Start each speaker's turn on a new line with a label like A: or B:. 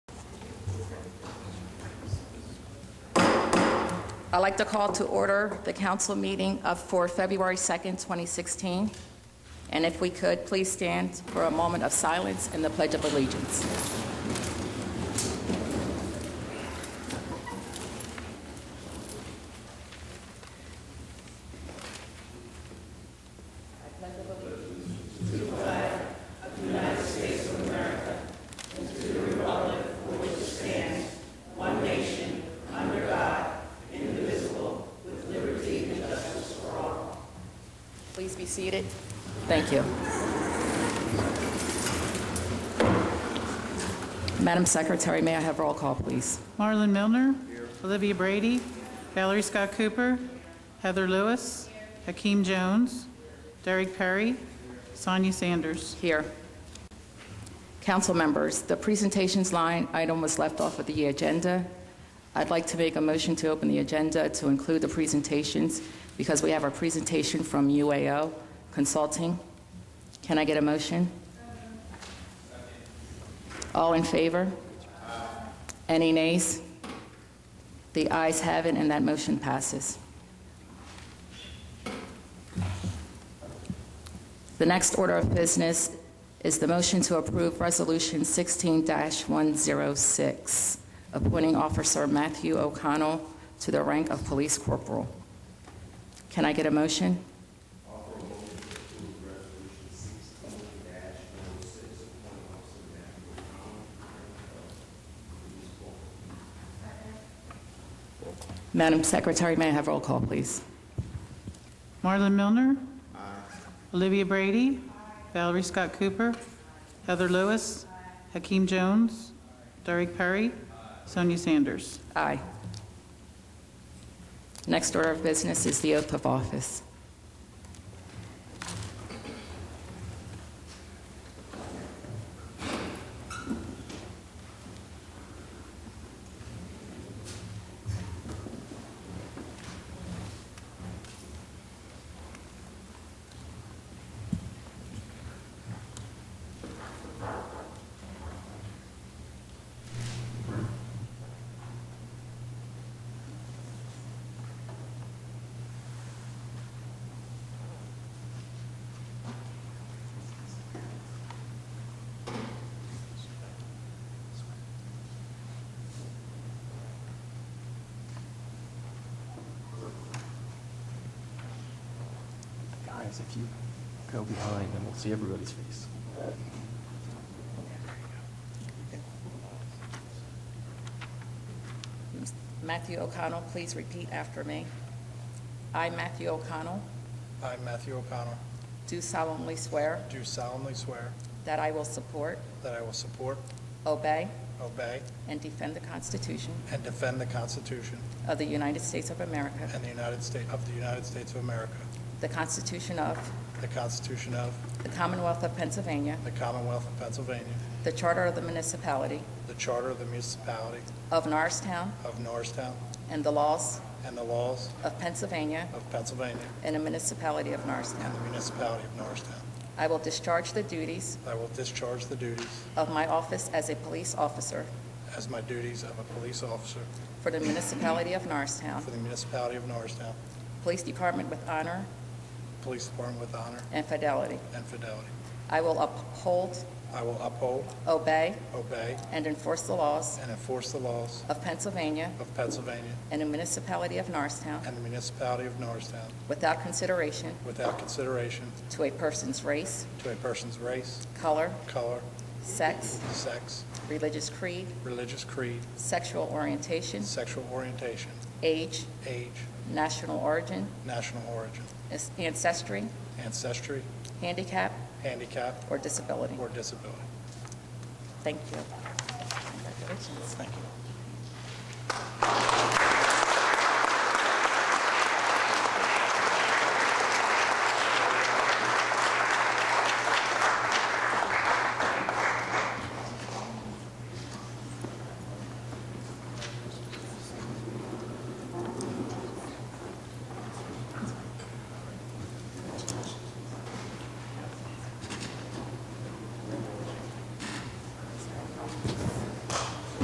A: I'd like to call to order the council meeting of- for February 2nd, 2016. And if we could, please stand for a moment of silence and the Pledge of Allegiance. Please be seated. Thank you. Madam Secretary, may I have roll call, please?
B: Marlon Milner. Olivia Brady. Valerie Scott Cooper. Heather Lewis. Hakeem Jones. Derek Perry. Sonia Sanders.
A: Here. Council members, the presentations line item was left off of the agenda. I'd like to make a motion to open the agenda to include the presentations because we have a presentation from UAO Consulting. Can I get a motion? All in favor? Any nays? The ayes have it, and that motion passes. The next order of business is the motion to approve Resolution 16-106, appointing Officer Matthew O'Connell to the rank of Police Corporal. Can I get a motion? Madam Secretary, may I have roll call, please?
B: Marlon Milner. Olivia Brady. Valerie Scott Cooper. Heather Lewis. Hakeem Jones. Derek Perry. Sonia Sanders.
A: Aye. Next order of business is the oath of office.
C: Guys, if you go behind, then we'll see everybody's face.
A: Matthew O'Connell, please repeat after me. I, Matthew O'Connell,
D: I, Matthew O'Connell,
A: do solemnly swear
D: do solemnly swear
A: that I will support,
D: that I will support,
A: obey,
D: obey,
A: and defend the Constitution
D: and defend the Constitution
A: of the United States of America,
D: and the United States, of the United States of America,
A: the Constitution of
D: the Constitution of
A: the Commonwealth of Pennsylvania,
D: the Commonwealth of Pennsylvania,
A: the Charter of the Municipality
D: the Charter of the Municipality
A: of Norristown,
D: of Norristown,
A: and the laws
D: and the laws
A: of Pennsylvania
D: of Pennsylvania
A: and the municipality of
D: and
A: Norristown.
D: the municipality of Norristown.
A: I will discharge the duties
D: I will discharge the duties
A: of my office as a police officer
D: as my duties of a police officer
A: for the municipality of Norristown
D: for the municipality of Norristown,
A: Police Department with honor
D: Police Department with honor
A: and fidelity.
D: and fidelity.
A: I will uphold,
D: I will uphold,
A: obey,
D: obey,
A: and enforce the laws
D: and enforce the laws
A: of Pennsylvania
D: of Pennsylvania
A: and the municipality of Norristown
D: and the municipality of Norristown
A: without consideration
D: without consideration
A: to a person's race,
D: to a person's race,
A: color,
D: color,
A: sex,
D: sex,
A: religious creed,
D: religious creed,
A: sexual orientation,
D: sexual orientation,
A: age,
D: age,
A: national origin,
D: national origin,
A: ancestry,
D: ancestry,
A: handicap,
D: handicap,
A: or disability.
D: or disability.
A: Thank you.